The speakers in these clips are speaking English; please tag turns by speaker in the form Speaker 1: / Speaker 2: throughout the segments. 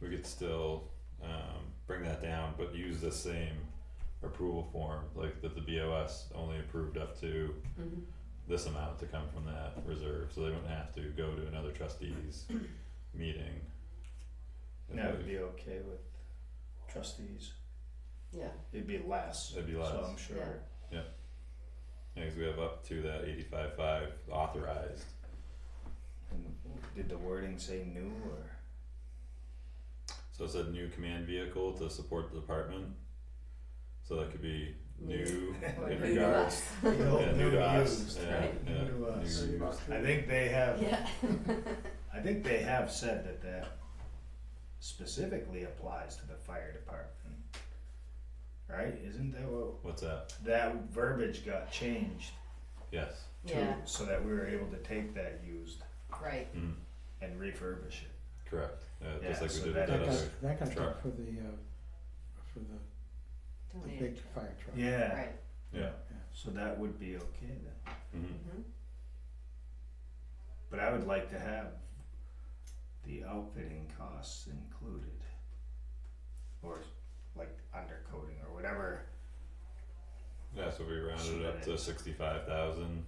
Speaker 1: we could still um bring that down, but use the same approval form, like that the BOS only approved up to
Speaker 2: Mhm.
Speaker 1: this amount to come from that reserve, so they wouldn't have to go to another trustees meeting.
Speaker 3: And that would be okay with trustees,
Speaker 2: yeah,
Speaker 3: it'd be less, so
Speaker 1: It'd be less.
Speaker 3: I'm sure.
Speaker 2: Yeah.
Speaker 1: Yeah, 'cause we have up to that eighty-five five authorized,
Speaker 3: And did the wording say new or?
Speaker 1: so it said new command vehicle to support the department. So that could be new in
Speaker 2: Like
Speaker 3: new to
Speaker 1: regards, yeah, new to us, yeah,
Speaker 2: right?
Speaker 1: yeah,
Speaker 3: New to us.
Speaker 1: new regards.
Speaker 3: I think they have,
Speaker 2: yeah,
Speaker 3: I think they have said that that specifically applies to the fire department. Right, isn't that what,
Speaker 1: What's that?
Speaker 3: that verbiage got changed
Speaker 1: Yes,
Speaker 3: to,
Speaker 2: yeah,
Speaker 3: so that we were able to take that used
Speaker 2: right,
Speaker 1: mm,
Speaker 3: and refurbish it.
Speaker 1: correct, yeah,
Speaker 3: Yeah,
Speaker 1: just like
Speaker 3: so
Speaker 1: we did with
Speaker 3: that
Speaker 1: that
Speaker 4: That got,
Speaker 1: other,
Speaker 4: that got done
Speaker 1: truck.
Speaker 4: for the, uh, for the, the
Speaker 2: donated,
Speaker 4: big fire truck.
Speaker 3: Yeah.
Speaker 2: right,
Speaker 1: yeah,
Speaker 3: So that would be okay then.
Speaker 1: mhm,
Speaker 2: mhm,
Speaker 3: But I would like to have the outfitting costs included. Or like undercoating or whatever,
Speaker 1: yeah, so we rounded it up to sixty-five thousand,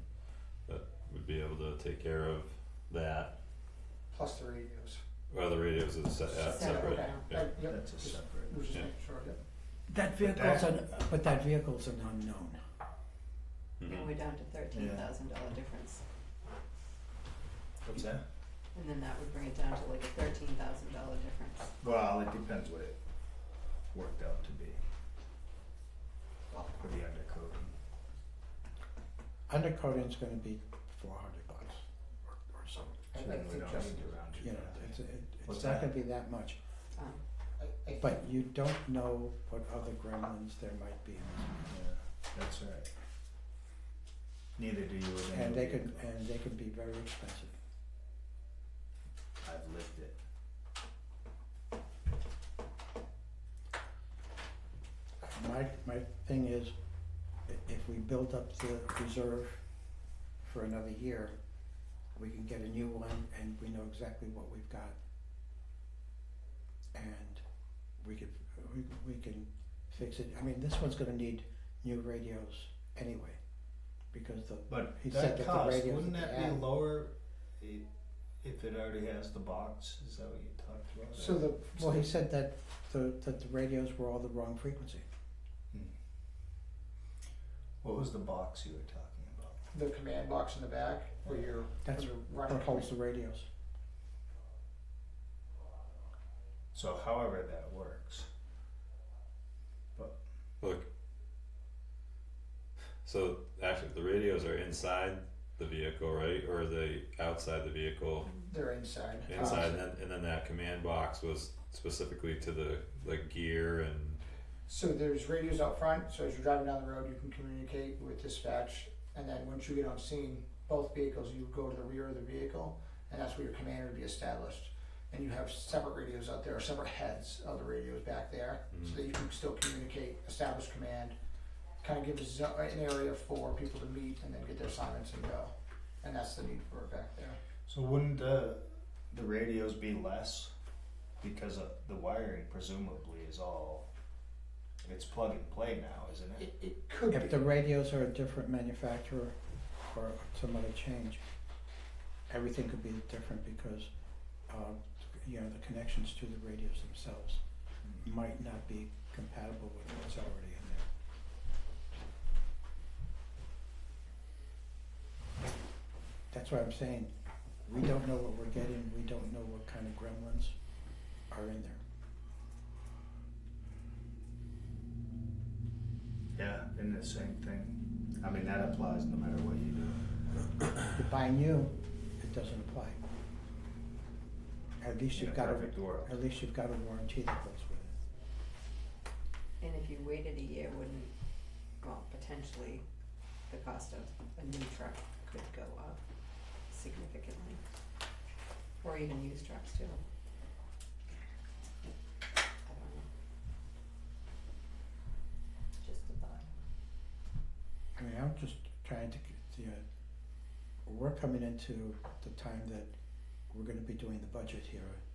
Speaker 1: that would be able to take care of that.
Speaker 5: plus the radios.
Speaker 1: Well, the radios is se- uh, separate,
Speaker 2: Separate,
Speaker 1: yeah,
Speaker 5: That, yep,
Speaker 3: that's a separate.
Speaker 5: we're just
Speaker 1: Yeah.
Speaker 5: making sure.
Speaker 4: That vehicle's an, but that vehicle's an unknown.
Speaker 2: and
Speaker 1: mhm,
Speaker 2: we're down to thirteen thousand dollar difference,
Speaker 3: What's that?
Speaker 2: and then that would bring it down to like a thirteen thousand dollar difference,
Speaker 3: Well, it depends what it worked out to be
Speaker 2: well,
Speaker 3: for the undercoating.
Speaker 4: Undercoating's gonna be four hundred bucks or, or something,
Speaker 3: So
Speaker 5: I- I
Speaker 3: then we
Speaker 5: think
Speaker 3: don't
Speaker 5: just-
Speaker 3: need to round
Speaker 4: you
Speaker 3: it
Speaker 4: know,
Speaker 3: down.
Speaker 4: it's, it,
Speaker 3: What's
Speaker 4: it's
Speaker 3: that?
Speaker 4: not gonna be that much.
Speaker 2: um,
Speaker 5: I, I think
Speaker 4: But you don't know what other gremlins there might be in this.
Speaker 3: Yeah, that's right. Neither do you with
Speaker 4: And
Speaker 3: any
Speaker 4: they
Speaker 3: vehicle.
Speaker 4: could, and they could be very expensive.
Speaker 3: I've lived it.
Speaker 4: My, my thing is, i- if we build up the reserve for another year, we can get a new one and we know exactly what we've got. And we could, we, we can fix it, I mean, this one's gonna need new radios anyway, because the,
Speaker 3: But
Speaker 4: He said
Speaker 3: that
Speaker 4: that the
Speaker 3: cost,
Speaker 4: radios
Speaker 3: wouldn't
Speaker 4: at the
Speaker 3: that be
Speaker 4: end-
Speaker 3: lower i- if it already has the box, is that what you talked about?
Speaker 5: so. The
Speaker 4: well, he said that the, that the radios were all the wrong frequency.
Speaker 3: Hmm. What was the box you were talking about?
Speaker 5: the command box in the back where you're
Speaker 4: That's
Speaker 5: where you're running.
Speaker 4: That holds the radios,
Speaker 3: So however that works.
Speaker 1: look. So actually, the radios are inside the vehicle, right, or are they outside the vehicle?
Speaker 5: They're inside.
Speaker 1: inside and then, and then that command box was specifically to the like gear and
Speaker 5: So there's radios out front. So as you're driving down the road, you can communicate with dispatch, and then once you get on scene, both vehicles, you go to the rear of the vehicle, and that's where your commander would be established. And you have separate radios out there, separate heads of the radios back there,
Speaker 1: mm.
Speaker 5: so that you can still communicate, establish command, kind of give a zo- an area for people to meet, and then get their assignments and go. And that's the need for it back there.
Speaker 3: So wouldn't uh, the radios be less? Because of the wiring presumably is all, it's plug and play now, isn't it?
Speaker 5: It, it could
Speaker 4: if
Speaker 5: be.
Speaker 4: the radios are a different manufacturer or some other change, everything could be different because, uh, you know, the connections to the radios themselves
Speaker 3: Hmm.
Speaker 4: might not be compatible with what's already in there. That's why I'm saying, we don't know what we're getting, we don't know what kind of gremlins are in there.
Speaker 3: Yeah, and the same thing. I mean, that applies no matter what you do.
Speaker 4: If you buy new, it doesn't apply. At least
Speaker 3: In a
Speaker 4: you've got a,
Speaker 3: perfect world.
Speaker 4: At least you've got a warranty that goes with it.
Speaker 2: and if you waited a year, wouldn't, well, potentially, the cost of a new truck could go up significantly, or even used trucks too. I don't know. Just a thought.
Speaker 4: I mean, I'm just trying to, get the, uh, we're coming into the time that we're gonna be doing the budget here